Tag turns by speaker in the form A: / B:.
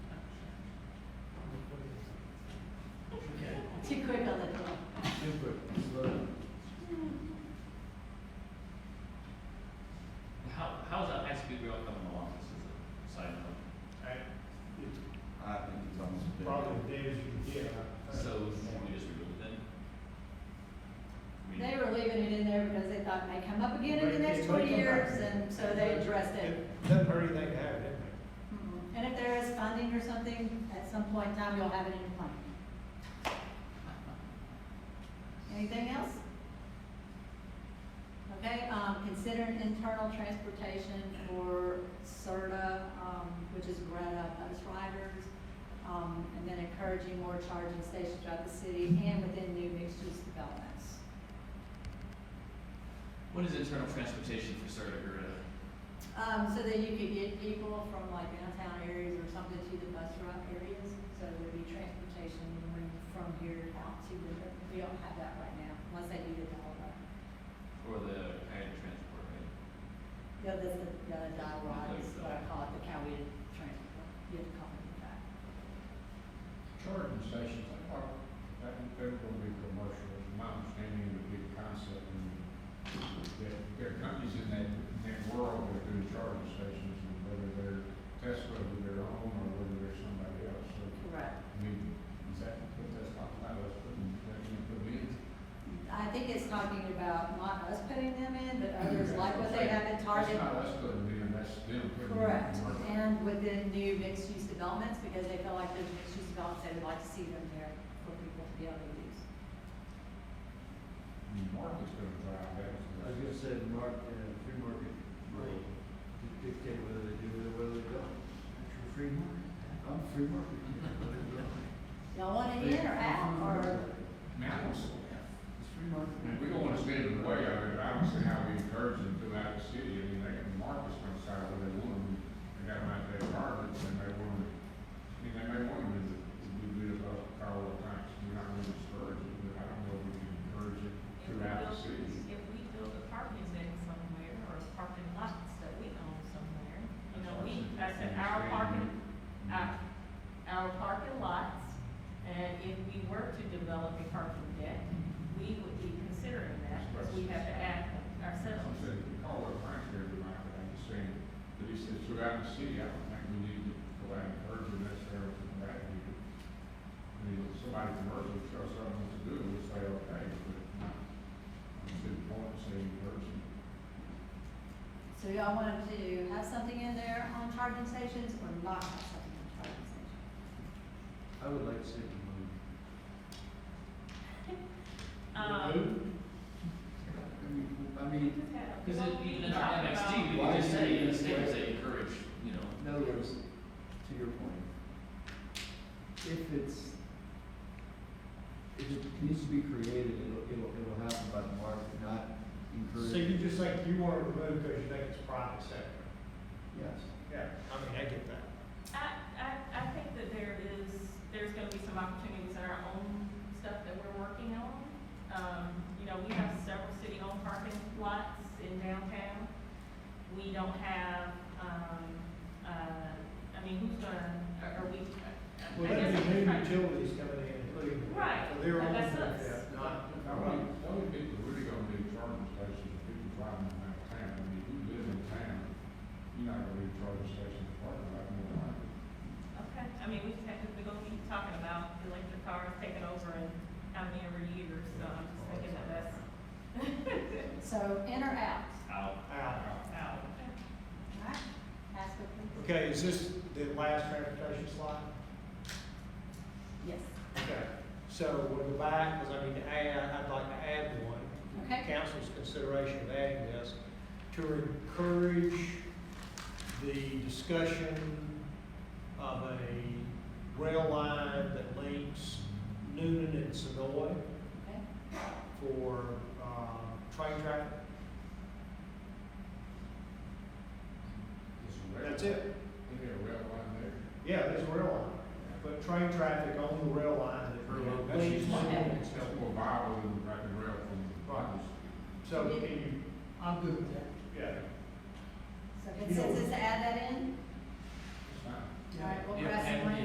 A: So should we just remove it then? I mean,
B: They were leaving it in there because they thought it may come up again in the next twenty years, and so they addressed it.
C: Doesn't hurt anything to have it,
B: Mhm. And if there is funding or something, at some point in time, you'll have it in your plan. Anything else? Okay, um, consider an internal transportation for CERTA, um, which is Greta, bus riders, um, and then encouraging more charging stations throughout the city and within new mixed-use developments.
A: What is internal transportation for Sarda Gorilla?
B: Um, so that you could get people from like downtown areas or something to the bus route areas, so there'd be transportation when- from here out to the, we don't have that right now, unless they do the Delaware.
A: Or the Coyote Transport, right?
B: Yeah, that's the, the dial rod is
A: Like
B: what I
A: that.
B: call it, the county transport, you have to call it that.
D: Charging stations, I thought that they were gonna be commercial, It's my understanding would be the concept, and that there are companies in that, that world that do charging stations, and whether they're Tesla, whether they're own, or whether they're somebody else, so,
B: Correct.
D: I mean, is that what that's talking about, us putting, that you put in?
B: I think it's talking about not us putting them in, but others
D: Okay,
B: like what
D: so
B: they have in Target.
D: That's not us putting it in, that's them putting it in.
B: Correct,
D: commercial.
B: and within new mixed-use developments, because they feel like there's mixed-use developments, they would like to see them there for people to be able to use.
D: The Market's gonna drive that.
C: I was gonna say, mark, uh, free market, right, dictate whether they do it or whether they don't. That's your free market. I'm free market.
B: Y'all want it in or out, or,
D: Now,
C: It's free market.
D: And we don't want to stand in the way of it, I don't see how we encourage them throughout the city, I mean, they can, market's gonna decide what they want, them. they got them out there apartments, and they want them, I mean, they may want them to, to be good about Carl Banks, we're not gonna discourage it, but I don't know if we can encourage it
E: If we
D: throughout the
E: build-
D: city.
E: If we build a parking deck somewhere or parking lots that we own somewhere, you know, we, I said, our parking, uh, our, our parking lots, and if we were to develop a parking deck, we would be considering that, because we have to act
D: I'm
E: ourselves.
D: saying, Carl Banks, everybody, but I'm just saying, but he says throughout the city, I don't think we need to go out and encourage them necessarily from that view. I mean, if somebody commercial, show something to do, we say, okay, but not, I'm good point, say encourage them.
B: so y'all want to have something in there on charging stations, or not have something on charging stations?
C: I would like to see it moved.
E: Um,
C: I mean, I
E: we
C: mean,
E: just had a-
A: Because
E: well, we
A: even in our
E: talked about-
A: MXT, we
C: Why
A: can just
C: is
A: say,
C: it-
A: in the state, say encourage, you know.
C: In other words, to your point, if it's, if it needs to be created, it'll, it'll, it'll happen by the market, not
F: So
C: encouraged.
F: you just think you want to remove because you think it's private sector?
C: Yes.
F: Yeah. I mean, I get that.
E: I, I, I think that there is, there's gonna be some opportunities in our own stuff that we're working on. Um, you know, we have several city-owned parking lots in downtown. We don't have, um, uh, I mean, who's gonna, are, are we? I- I
F: Well,
E: guess
F: that'd
E: I'm
F: be new
E: trying-
F: utilities coming in, including.
E: Right,
F: So they're on
E: that's
F: that,
E: us.
F: not.
D: Now, what, what would people really gonna do charging stations, if people driving around town, I mean, if you live in town, you're not gonna do charging stations in the parking lot, more than likely.
E: Okay, I mean, we have, we're gonna be talking about electric cars taking over in how many every year, so I'm just thinking that that's
B: So in or out,
A: Out.
F: Out.
E: out.
B: alright, ask for approval.
F: Okay, is this the last transportation slide?
B: Yes,
F: Okay, so we'll go back, because I need to add, I'd like to add one.
B: Okay.
F: Council's consideration of adding this, to encourage the discussion of a rail line that links Noonan and Sonoy
B: okay,
F: for, uh, train traffic.
D: It's a rail-
F: That's it.
D: There'd be a rail line there.
F: Yeah, there's a rail line, but train traffic on the rail line that
D: That's
F: links
D: just one,
F: Newnan and
D: that's
F: Sonoy.
D: more viable than wrapping rail from the
F: Right.
D: property.
F: So, can you,
C: I'm good with that.
F: yeah,
B: so
F: You know-
B: consensus to add that in,
D: It's fine.
B: alright, we'll
A: Yeah,
B: press
A: and-
B: one.